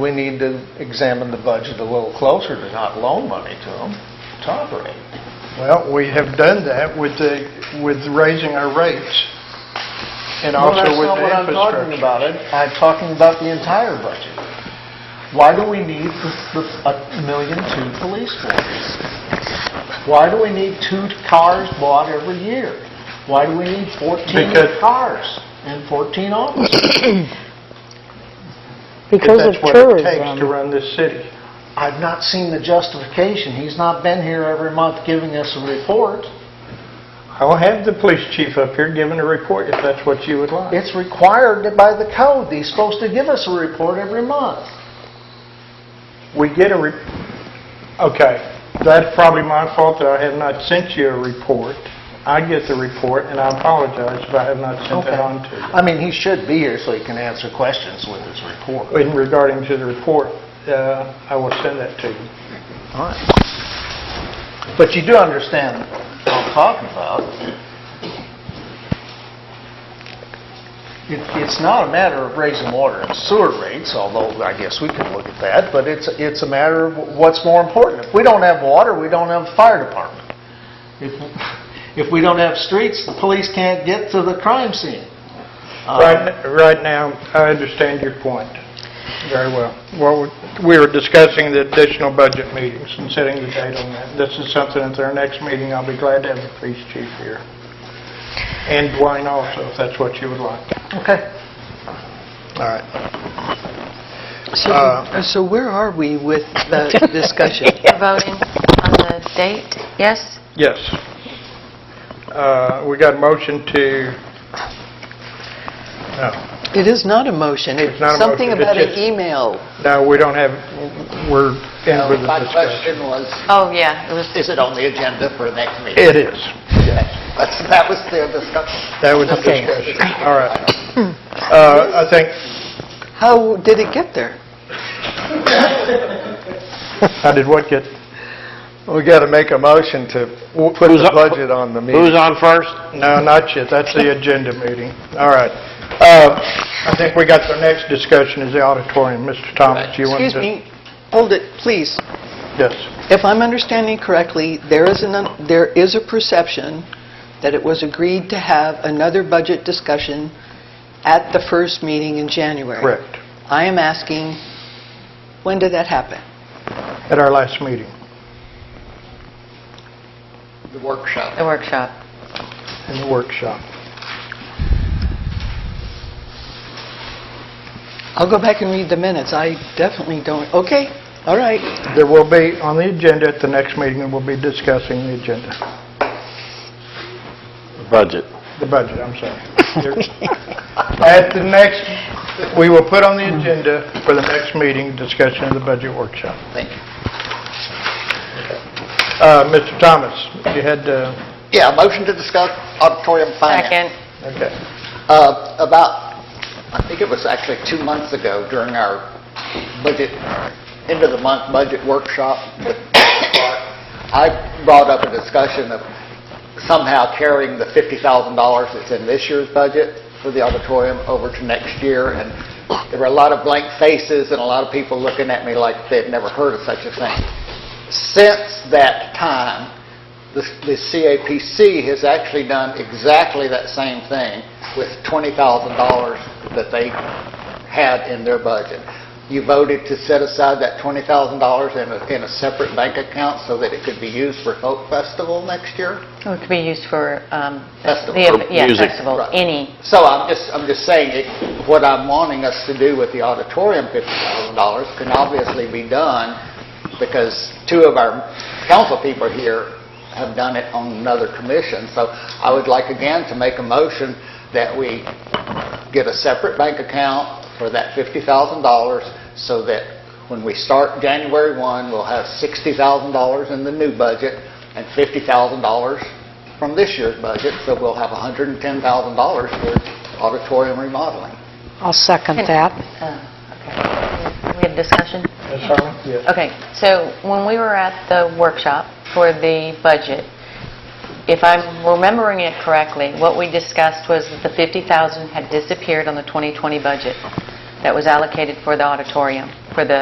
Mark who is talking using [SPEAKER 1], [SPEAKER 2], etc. [SPEAKER 1] we need to examine the budget a little closer to not loan money to them to operate.
[SPEAKER 2] Well, we have done that with the, with raising our rates and
[SPEAKER 1] Well,
[SPEAKER 2] also with the
[SPEAKER 1] That's not what I'm talking
[SPEAKER 2] infrastructure.
[SPEAKER 1] about. I'm- I'm talking about the entire budget. Why do we need the- the- a million two police force? Why do we need two cars bought every year? Why do we need 14
[SPEAKER 2] Because-
[SPEAKER 1] cars and 14 officers?
[SPEAKER 3] because of
[SPEAKER 2] That's what it takes to
[SPEAKER 3] tourism.
[SPEAKER 2] run this city.
[SPEAKER 1] I've not seen the justification. He's not been here every month giving us a report.
[SPEAKER 2] I'll have the police chief up here giving a report if that's what you would like.
[SPEAKER 1] It's required by the code. He's supposed to give us a report every month.
[SPEAKER 2] We get a, re- okay, that's probably my fault that I have not sent you a report. I get the report, and I apologize if I have not sent
[SPEAKER 1] Okay.
[SPEAKER 2] that on to you.
[SPEAKER 1] I mean, he should be here so he can answer questions with his report.
[SPEAKER 2] In regarding to the report, uh, I will send that to you.
[SPEAKER 1] All right. But you do understand what I'm talking about. It- It's not a matter of raising water and sewer rates, although I guess we could look at that, but it's, it's a matter of what's more important. If we don't have water, we don't have a fire department. If, if we don't have streets, the police can't get to the crime scene. Uh,
[SPEAKER 2] Right, right now, I understand your point very well. Well, we were discussing the additional budget meetings and setting the date on that. This is something at our next meeting, I'll be glad to have the police chief here. And Dwayne also, if that's what you would like.
[SPEAKER 1] Um, Okay.
[SPEAKER 4] All right. So where are we with the discussion?
[SPEAKER 5] You're voting on the date, yes?
[SPEAKER 2] Yes. Uh, We got a motion to, no,
[SPEAKER 4] It is not a motion. It's
[SPEAKER 2] not a
[SPEAKER 4] something
[SPEAKER 2] motion.
[SPEAKER 4] about
[SPEAKER 2] It's
[SPEAKER 4] an
[SPEAKER 2] just-
[SPEAKER 4] email.
[SPEAKER 2] no, we don't have, we're in with the
[SPEAKER 6] My
[SPEAKER 2] discussion.
[SPEAKER 6] question was,
[SPEAKER 5] Oh, yeah, it was,
[SPEAKER 6] is it on the agenda for the next meeting?
[SPEAKER 2] It is.
[SPEAKER 6] That's- That was their discussion.
[SPEAKER 2] That was the
[SPEAKER 4] Okay.
[SPEAKER 2] discussion. All right. Uh, I think
[SPEAKER 4] How did it get there?
[SPEAKER 2] How did what get?
[SPEAKER 1] We got to make a motion to put the budget on the meeting.
[SPEAKER 2] on first? No, not yet. That's the agenda meeting. All right. Uh, I think we got the next discussion is the auditorium. Mr. Thomas, you want to?
[SPEAKER 4] Excuse me, hold it, please.
[SPEAKER 2] Yes.
[SPEAKER 4] If I'm understanding correctly, there is an, there is a perception that it was agreed to have another budget discussion at the first meeting in January.
[SPEAKER 2] Correct.
[SPEAKER 4] I am asking, when did that happen?
[SPEAKER 2] At our last meeting.
[SPEAKER 6] The workshop.
[SPEAKER 5] the workshop.
[SPEAKER 2] in the workshop.
[SPEAKER 4] I'll go back and read the minutes. I definitely don't, okay, all right.
[SPEAKER 2] There will be, on the agenda at the next meeting, and we'll be discussing the agenda. Budget. The budget, I'm sorry. At the next, we will put on the agenda for the next meeting, discussion of the budget workshop.
[SPEAKER 6] Thank you.
[SPEAKER 2] Uh, Mr. Thomas, you had, uh,
[SPEAKER 6] Yeah, motion to discuss auditorium finance.
[SPEAKER 5] Second.
[SPEAKER 2] okay.
[SPEAKER 6] Uh, About, I think it was actually two months ago during our budget, end of the month budget workshop, I brought up a discussion of somehow carrying the $50,000 that's in this year's budget for the auditorium over to next year, and there were a lot of blank faces and a lot of people looking at me like they'd never heard of such a thing since that time, the the CAPC has actually done exactly that same thing with $20,000 that they had in their budget. You voted to set aside that $20,000 in a, in a separate bank account so that it could be used for Folk Festival next year?
[SPEAKER 5] It could be used for, um,
[SPEAKER 6] Festival.
[SPEAKER 5] the- yeah,
[SPEAKER 7] music.
[SPEAKER 5] festival,
[SPEAKER 6] Right.
[SPEAKER 5] any.
[SPEAKER 6] So I'm just, I'm just saying, it- what I'm wanting us to do with the auditorium, $50,000, can obviously be done because two of our council people here have done it on another commission. So I would like again to make a motion that we get a separate bank account for that $50,000 so that when we start January 1, we'll have $60,000 in the new budget and $50,000 from this year's budget, so we'll have $110,000 for auditorium remodeling.
[SPEAKER 8] I'll second that.
[SPEAKER 5] Uh, okay. We have discussion?
[SPEAKER 2] Ms. Harmon? Yes.
[SPEAKER 5] Okay, so when we were at the workshop for the budget, if I'm remembering it correctly, what we discussed was that the 50,000 had disappeared on the 2020 budget. that was allocated for the auditorium, for the